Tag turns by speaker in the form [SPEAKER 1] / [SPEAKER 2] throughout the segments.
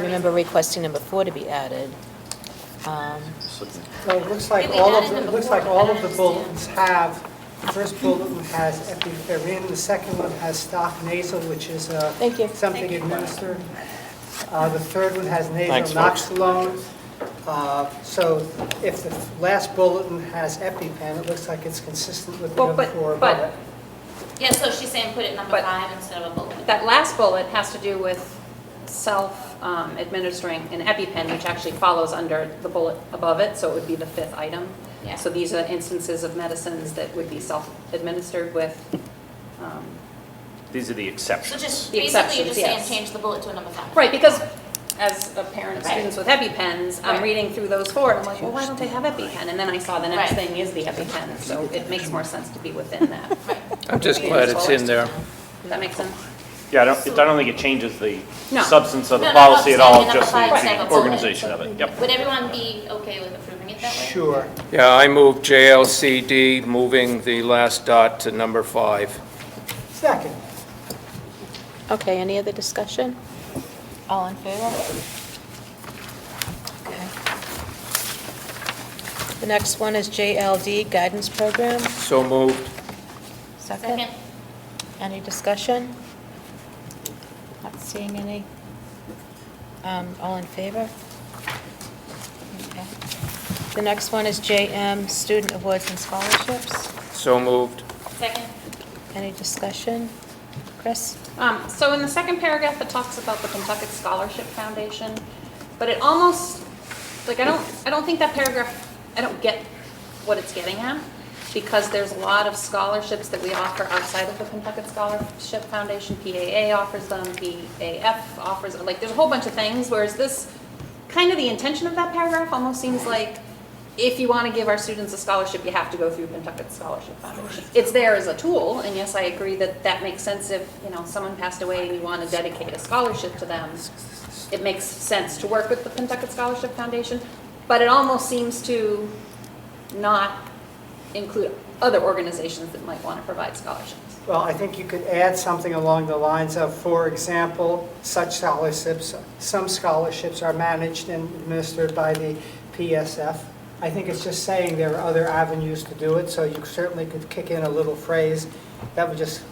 [SPEAKER 1] remember requesting number four to be added. Um,
[SPEAKER 2] So it looks like
[SPEAKER 3] Yeah, we
[SPEAKER 2] all
[SPEAKER 3] added
[SPEAKER 2] of, the-
[SPEAKER 3] them
[SPEAKER 2] it looks
[SPEAKER 3] before,
[SPEAKER 2] like
[SPEAKER 3] but
[SPEAKER 2] all
[SPEAKER 3] I
[SPEAKER 2] of the
[SPEAKER 3] don't
[SPEAKER 2] bulletins have, the first bulletin has epinephrine, the second one has stock nasal, which is uh,
[SPEAKER 1] Thank you.
[SPEAKER 2] something administered. Uh, The third one has
[SPEAKER 4] Thanks,
[SPEAKER 2] nasal
[SPEAKER 4] folks.
[SPEAKER 2] noxolone. Uh, So if the last bulletin has EpiPen, it looks like it's consistent with the
[SPEAKER 5] Well,
[SPEAKER 2] other
[SPEAKER 5] but-
[SPEAKER 2] four.
[SPEAKER 5] but-
[SPEAKER 2] bullets.
[SPEAKER 3] Yeah, so she's saying put it number
[SPEAKER 5] But-
[SPEAKER 3] five instead of a bullet.
[SPEAKER 5] That last bullet has to do with self-administering an EpiPen, which actually follows under the bullet above it, so it would be the fifth item.
[SPEAKER 3] Yeah.
[SPEAKER 5] So these are instances of medicines that would be self-administered with, um,
[SPEAKER 4] These are the
[SPEAKER 3] So
[SPEAKER 4] exceptions.
[SPEAKER 3] just,
[SPEAKER 5] The
[SPEAKER 3] basically, you're
[SPEAKER 5] exceptions,
[SPEAKER 3] just saying
[SPEAKER 5] yes.
[SPEAKER 3] change the bullet to a number five.
[SPEAKER 5] right, because as a parent of
[SPEAKER 3] Right.
[SPEAKER 5] students with EpiPens,
[SPEAKER 3] Right.
[SPEAKER 5] I'm reading through those four, and I'm like, well, why don't they have EpiPen? And then I saw the next
[SPEAKER 3] Right.
[SPEAKER 5] thing is the EpiPen, so it makes more sense to be within that.
[SPEAKER 6] I'm just glad it's in there.
[SPEAKER 5] Does that make sense?
[SPEAKER 4] Yeah, I don't, it- I don't think it changes the
[SPEAKER 5] No.
[SPEAKER 4] substance of the
[SPEAKER 3] No, no,
[SPEAKER 4] policy at
[SPEAKER 3] no,
[SPEAKER 4] all,
[SPEAKER 3] no,
[SPEAKER 4] just
[SPEAKER 3] no, no, no,
[SPEAKER 4] the
[SPEAKER 3] no,
[SPEAKER 4] organization of it. Yep.
[SPEAKER 3] Would everyone be okay with approving it that way?
[SPEAKER 2] Sure.
[SPEAKER 6] Yeah, I move JLCD, moving the last dot to number five.
[SPEAKER 2] Second.
[SPEAKER 1] Okay, any other discussion? All in favor? Okay. The next one is JLD Guidance Program.
[SPEAKER 6] So moved.
[SPEAKER 3] Second?
[SPEAKER 1] Any discussion? Not seeing any. Um, All in favor? Okay. The next one is JM Student Awards and Scholarships.
[SPEAKER 6] So moved.
[SPEAKER 3] Second?
[SPEAKER 1] Any discussion? Chris?
[SPEAKER 5] Um, So in the second paragraph, it talks about the Kentucky Scholarship Foundation, but it almost, like, I don't, I don't think that paragraph, I don't get what it's getting at, because there's a lot of scholarships that we offer outside of the Kentucky Scholarship Foundation. PAA offers them, PAF offers, like, there's a whole bunch of things, whereas this, kind of the intention of that paragraph almost seems like, if you want to give our students a scholarship, you have to go through Pentucket Scholarship Foundation. It's there as a tool, and yes, I agree that that makes sense if, you know, someone passed away and you want to dedicate a scholarship to them. It makes sense to work with the Pentucket Scholarship Foundation, but it almost seems to not include other organizations that might want to provide scholarships.
[SPEAKER 2] Well, I think you could add something along the lines of, for example, such scholarships, some scholarships are managed and administered by the PSF. I think it's just saying there are other avenues to do it, so you certainly could kick in a little phrase that would just,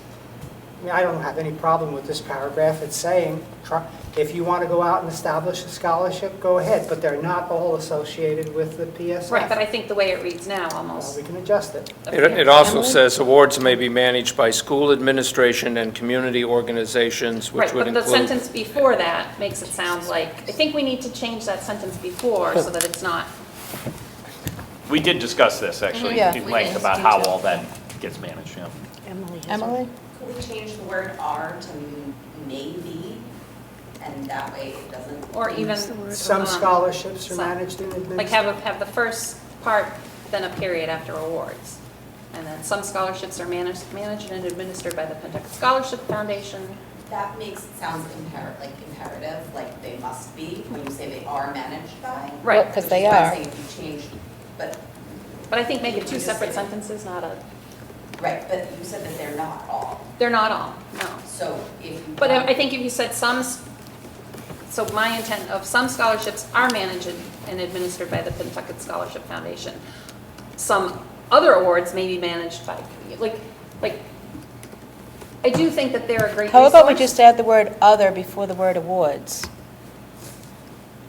[SPEAKER 2] I mean, I don't have any problem with this paragraph. It's saying, try- if you want to go out and establish a scholarship, go ahead, but they're not all associated with the PSF.
[SPEAKER 5] Right, but I think the way it reads now
[SPEAKER 2] Well,
[SPEAKER 5] almost.
[SPEAKER 2] We can adjust it.
[SPEAKER 6] It it also says awards may be managed by school administration and community organizations, which
[SPEAKER 5] Right,
[SPEAKER 6] would
[SPEAKER 5] but the
[SPEAKER 6] include.
[SPEAKER 5] sentence before that makes it sound like, I think we need to change that sentence before so that it's not,
[SPEAKER 4] We did discuss this, actually,
[SPEAKER 1] Yeah.
[SPEAKER 4] in
[SPEAKER 1] We
[SPEAKER 4] length
[SPEAKER 1] did.
[SPEAKER 4] about how all that gets managed, yeah.
[SPEAKER 1] Emily?
[SPEAKER 7] Could we change the word are to maybe, and that way it doesn't?
[SPEAKER 5] or even,
[SPEAKER 2] Some
[SPEAKER 5] um,
[SPEAKER 2] scholarships are
[SPEAKER 5] some-
[SPEAKER 2] managed and administered.
[SPEAKER 5] like have, a- have the first part, then a period after awards. And then some scholarships are managed, managed and administered by the Pentucket Scholarship Foundation.
[SPEAKER 7] That makes, it sounds imperative, like imperative, like they must be, when you say they are managed by.
[SPEAKER 5] Right.
[SPEAKER 1] Because
[SPEAKER 7] Which
[SPEAKER 1] they
[SPEAKER 7] is why I'm
[SPEAKER 1] are.
[SPEAKER 7] saying if you change, but,
[SPEAKER 5] But I think maybe
[SPEAKER 7] You can
[SPEAKER 5] two
[SPEAKER 7] just
[SPEAKER 5] separate
[SPEAKER 7] say-
[SPEAKER 5] sentences, not a,
[SPEAKER 7] right, but you said that they're not all,
[SPEAKER 5] they're not all, no.
[SPEAKER 7] so if you.
[SPEAKER 5] But I I
[SPEAKER 7] want-
[SPEAKER 5] think if you said some, s- so my intent of some scholarships are managed and administered by the Pentucket Scholarship Foundation. Some other awards may be managed by, like, like, I do think that they're a great resource.
[SPEAKER 1] How about we just add the word "other" before the word "awards"?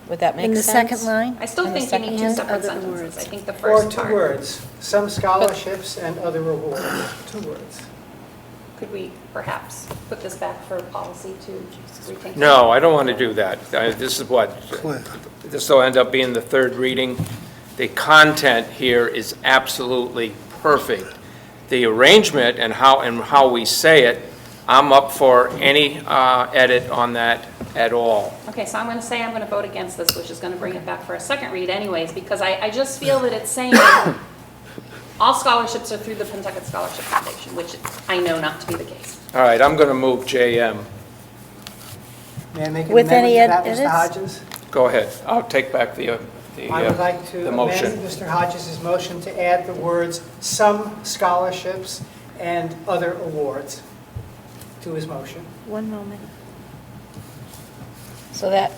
[SPEAKER 1] Would that make sense?
[SPEAKER 8] In the second line?
[SPEAKER 5] I still
[SPEAKER 1] in the
[SPEAKER 5] think you need two
[SPEAKER 8] second-
[SPEAKER 5] separate
[SPEAKER 8] and other
[SPEAKER 5] sentences. I
[SPEAKER 8] awards.
[SPEAKER 5] think the
[SPEAKER 2] Or
[SPEAKER 5] first
[SPEAKER 2] two
[SPEAKER 5] part.
[SPEAKER 2] words, some scholarships and other awards, two words.
[SPEAKER 5] Could we perhaps put this back for policy to rethink?
[SPEAKER 6] No, I don't want to do that. I- This is what, this will end up being the third reading. The content here is absolutely perfect. The arrangement and how, and how we say it, I'm up for any uh, edit on that at all.
[SPEAKER 5] Okay, so I'm going to say I'm going to vote against this, which is going to bring it back for a second read anyways, because I, I just feel that it's saying all scholarships are through the Pentucket Scholarship Foundation, which I know not to be the case.
[SPEAKER 6] All right, I'm going to move JM.
[SPEAKER 2] May I make an amendment
[SPEAKER 8] With
[SPEAKER 2] to
[SPEAKER 8] any
[SPEAKER 2] that,
[SPEAKER 8] edits?
[SPEAKER 2] Mr. Hodges?
[SPEAKER 6] Go ahead. I'll take back the, uh, the
[SPEAKER 2] I would
[SPEAKER 6] uh,
[SPEAKER 2] like to
[SPEAKER 6] the
[SPEAKER 2] amend
[SPEAKER 6] motion.
[SPEAKER 2] Mr. Hodges' motion to add the words "some scholarships and other awards" to his motion.
[SPEAKER 8] One moment.
[SPEAKER 1] So that,